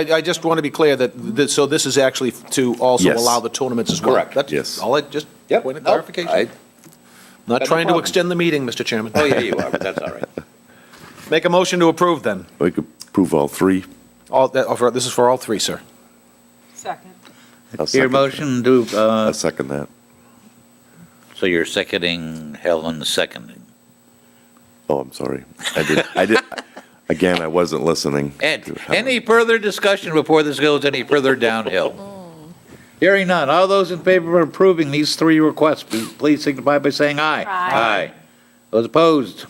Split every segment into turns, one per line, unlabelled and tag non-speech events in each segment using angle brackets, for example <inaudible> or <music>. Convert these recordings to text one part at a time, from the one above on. I, I just want to be clear that, that, so this is actually to also
Yes.
allow the tournaments as well?
Correct,
That's
yes.
All I, just
Yep.
point of
no, I-
clarification. Not
no
trying to
problem.
extend the meeting, Mr. Chairman.
Oh, yeah, you are, but that's all
<laughs>
right.
<laughs> Make a motion to approve then.
We could prove all three.
All, that, oh, for- this is for all three, sir.
Second.
I'll
Your
second-
motion to, uh,
I'll second that.
so you're seconding Helen seconding.
Oh, I'm sorry. I did, I did, <laughs> again, I wasn't listening.
Ed, any further discussion before this goes any further downhill? <laughs> Hearing none. All those in favor of approving these three requests, please- please signify by saying aye.
Aye.
Those opposed?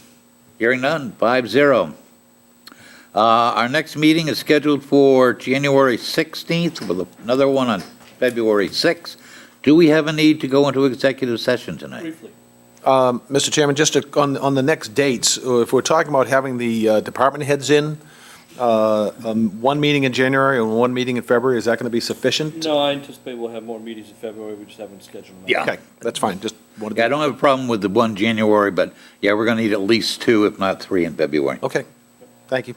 Hearing none, five zero. Uh, our next meeting is scheduled for January 16th with another one on February 6th. Do we have a need to go into executive session tonight?
Um, Mr. Chairman, just to- on, on the next dates, uh, if we're talking about having the uh, department heads in, uh, um, one meeting in January and one meeting in February, is that going to be sufficient?
No, I anticipate we'll have more meetings in February, we just haven't scheduled them. out.
Okay, that's fine, just wanted
Yeah, I
to,
don't have a problem with the one January, but yeah, we're going to need at least two, if not three, in February.
okay, thank you.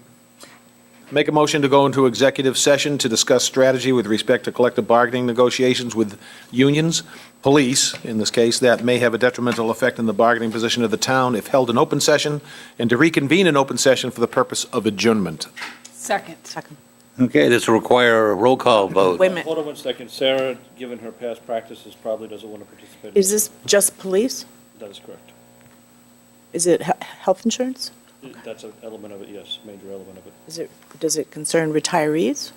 Make a motion to go into executive session to discuss strategy with respect to collective bargaining negotiations with unions, police, in this case, that may have a detrimental effect on the bargaining position of the town if held in open session, and to reconvene in open session for the purpose of adjournment.
Second. Second.
Okay, this will require a roll call vote.
Wait a minute,
Hold on one second, Sarah, given her past practices, probably doesn't want to participate. in
is this just police?
That is correct.
Is it he- health insurance?
That's an element of it, yes, major element of it.
Is it, does it concern retirees?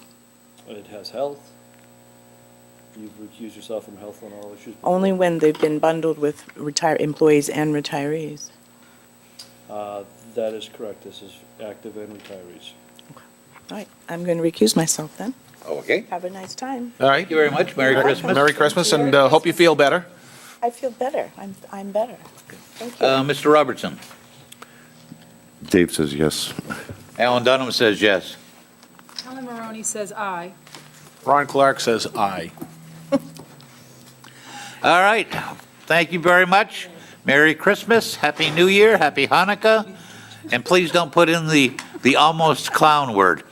It has health. You've recused yourself from health on all issues. before.
Only when they've been bundled with retire, employees and retirees.
Uh, That is correct, this is active and retirees.
All right, I'm going to recuse myself then.
Okay.
Have a nice time.
All right?
Thank you very much. Merry Christmas.
Merry Christmas, and uh, hope you feel better.
I feel better, I'm, I'm better. Thank you.
Uh, Mr. Robertson.
Dave says yes.
Alan Dunham says yes.
Helen Maroney says aye.
Ron Clark says aye.
All right. Thank you very much. Merry Christmas, Happy New Year, Happy Hanukkah, and please don't put in the, the almost clown word.